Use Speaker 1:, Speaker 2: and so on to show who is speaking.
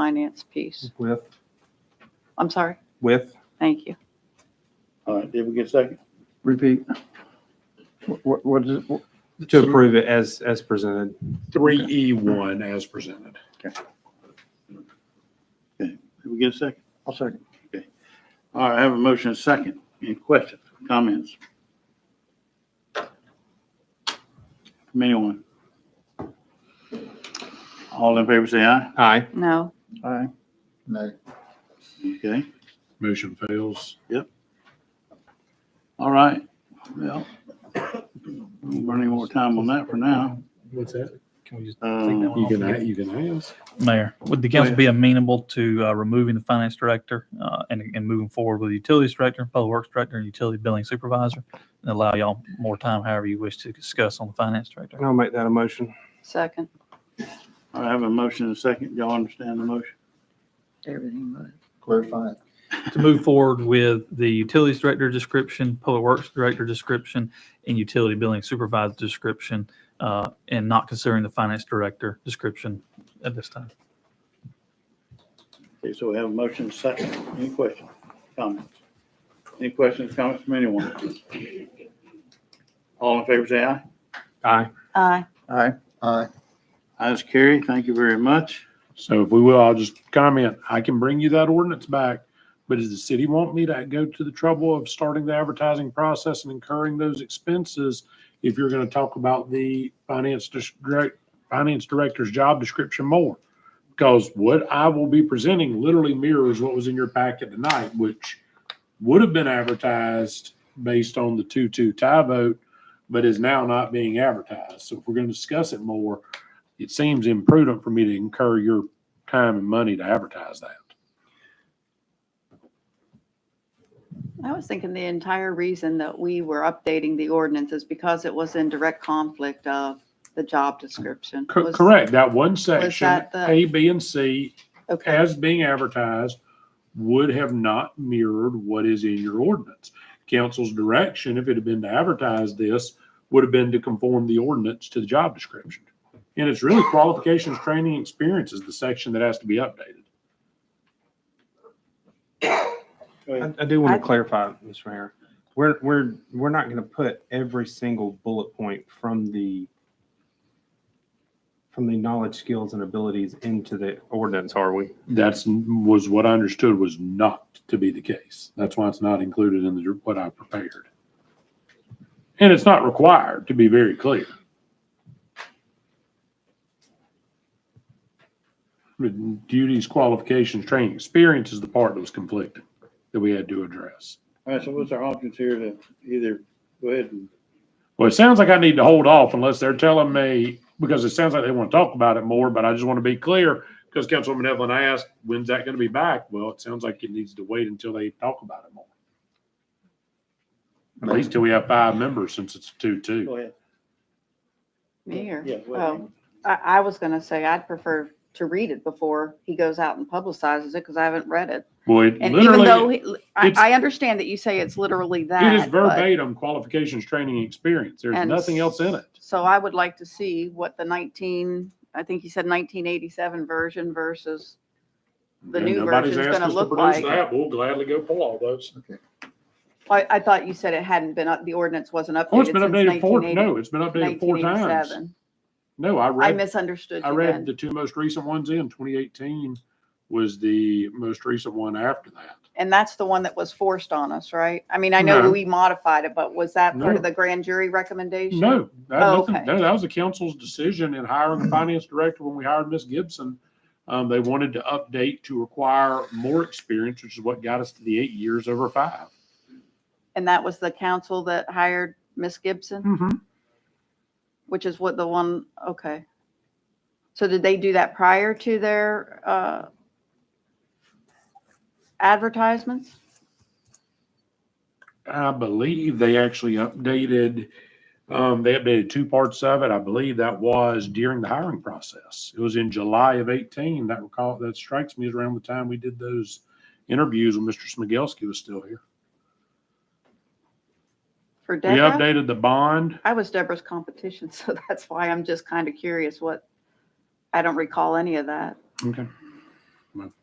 Speaker 1: finance piece.
Speaker 2: With,
Speaker 1: I'm sorry.
Speaker 2: with,
Speaker 1: Thank you.
Speaker 3: All right, did we get a second?
Speaker 4: Repeat. What, what is, it?
Speaker 2: to approve it as, as presented.
Speaker 5: Three E one as presented.
Speaker 3: Did we get a second?
Speaker 4: I'll second.
Speaker 3: All right, I have a motion and a second. Any questions, comments? From anyone? All in favor, say aye.
Speaker 2: Aye.
Speaker 1: No,
Speaker 4: Aye. No.
Speaker 3: Okay,
Speaker 5: Motion fails.
Speaker 3: all right. Well, won't burn any more time on that for now.
Speaker 5: What's that?
Speaker 6: Can we just take that
Speaker 3: Um,
Speaker 5: You can,
Speaker 6: one off?
Speaker 5: a- you can ask.
Speaker 6: Mayor, would the council be amenable to uh, removing the finance director uh, and, and moving forward with the utilities director, public works director, and utility billing supervisor? And allow y'all more time, however you wish to discuss on the finance director.
Speaker 2: I'll make that a motion.
Speaker 1: second.
Speaker 3: all right, I have a motion and a second. Y'all understand the motion?
Speaker 7: Everything was.
Speaker 4: Clarify.
Speaker 6: To move forward with the utilities director description, public works director description, and utility billing supervisor description, uh, and not considering the finance director description at this time.
Speaker 3: Okay, so we have a motion and a second. Any questions, comments? Any questions, comments from anyone? All in favor, say aye.
Speaker 2: Aye.
Speaker 1: Aye.
Speaker 4: Aye. Aye.
Speaker 3: Ayes, carry. Thank you very much.
Speaker 5: So if we will, I'll just comment, I can bring you that ordinance back, but does the city want me to go to the trouble of starting the advertising process and incurring those expenses? If you're going to talk about the finance dis- direct, finance director's job description more? Because what I will be presenting literally mirrors what was in your packet tonight, which would have been advertised based on the two-two tie vote, but is now not being advertised. So if we're going to discuss it more, it seems imprudent for me to incur your time and money to advertise that.
Speaker 1: I was thinking the entire reason that we were updating the ordinance is because it was in direct conflict of the job description.
Speaker 5: Cor-
Speaker 1: Was-
Speaker 5: Correct, that one section,
Speaker 1: that the-
Speaker 5: A, B, and C,
Speaker 1: Okay,
Speaker 5: as being advertised, would have not mirrored what is in your ordinance. Council's direction, if it had been to advertise this, would have been to conform the ordinance to the job description. And it's really qualifications, training, experience is the section that has to be updated.
Speaker 2: I, I do want
Speaker 1: I-
Speaker 2: to clarify, Mr. Mayor. We're, we're, we're not going to put every single bullet point from the, from the knowledge, skills and abilities into the ordinance, are we?
Speaker 5: That's, was what I understood was not to be the case. That's why it's not included in the, what I prepared. And it's not required, to be very clear. But Duties, qualifications, training, experience is the part that was conflicting that we had to address.
Speaker 3: All right, so what's our options here to either go ahead and,
Speaker 5: Well, it sounds like I need to hold off unless they're telling me, because it sounds like they want to talk about it more, but I just want to be clear. Because Councilwoman Evelyn asked, when's that going to be back? Well, it sounds like it needs to wait until they talk about it more. At least till we have five members since it's two-two.
Speaker 3: go ahead? Um,
Speaker 1: me or?
Speaker 3: Yeah, go ahead.
Speaker 1: Oh, I, I was going to say I'd prefer to read it before he goes out and publicizes it because I haven't read it.
Speaker 5: Well, it
Speaker 1: And even though,
Speaker 5: literally,
Speaker 1: he- I,
Speaker 5: it's-
Speaker 1: I understand that you say it's literally that.
Speaker 5: it is
Speaker 1: but-
Speaker 5: verbatim qualifications, training, and experience. There's
Speaker 1: and
Speaker 5: nothing else in it.
Speaker 1: So I would like to see what the 19, I think he said 1987 version versus The
Speaker 5: And
Speaker 1: new
Speaker 5: nobody's
Speaker 1: version's
Speaker 5: asked
Speaker 1: gonna
Speaker 5: us to
Speaker 1: look
Speaker 5: produce
Speaker 1: like-
Speaker 5: that. We'll gladly go pull all those.
Speaker 1: I, I thought you said it hadn't been, up- the ordinance wasn't updated.
Speaker 5: Oh, it's been
Speaker 1: since
Speaker 5: updated four,
Speaker 1: 1980
Speaker 5: no, it's been updated four times.
Speaker 1: 1987.
Speaker 5: No, I
Speaker 1: I
Speaker 5: read
Speaker 1: misunderstood
Speaker 5: I
Speaker 1: you
Speaker 5: read
Speaker 1: then.
Speaker 5: the two most recent ones in 2018 was the most recent one after that.
Speaker 1: And that's the one that was forced on us, right? I mean, I know
Speaker 5: No.
Speaker 1: we modified it, but was that part of
Speaker 5: No.
Speaker 1: the grand jury recommendation?
Speaker 5: No, that,
Speaker 1: Oh,
Speaker 5: nothing-
Speaker 1: okay. Mm-hmm.
Speaker 5: no, that was the council's decision in hiring the finance director when we hired Miss Gibson. Um, they wanted to update to require more experience, which is what got us to the eight years over 5
Speaker 1: And that was the council that hired Miss Gibson,
Speaker 5: Mm-hmm.
Speaker 1: which is what the one, okay. So did they do that prior to their uh, advertisements?
Speaker 5: I believe they actually updated, um, they updated two parts of it. I believe that was during the hiring process. It was in July of eighteen. That recall, that strikes me as around the time we did those interviews when Mr. Smigelski was still here.
Speaker 1: For
Speaker 5: We
Speaker 1: DECA?
Speaker 5: updated the bond.
Speaker 1: I was Deborah's competition, so that's why I'm just kind of curious what, I don't recall any of that.
Speaker 5: Okay. I mean,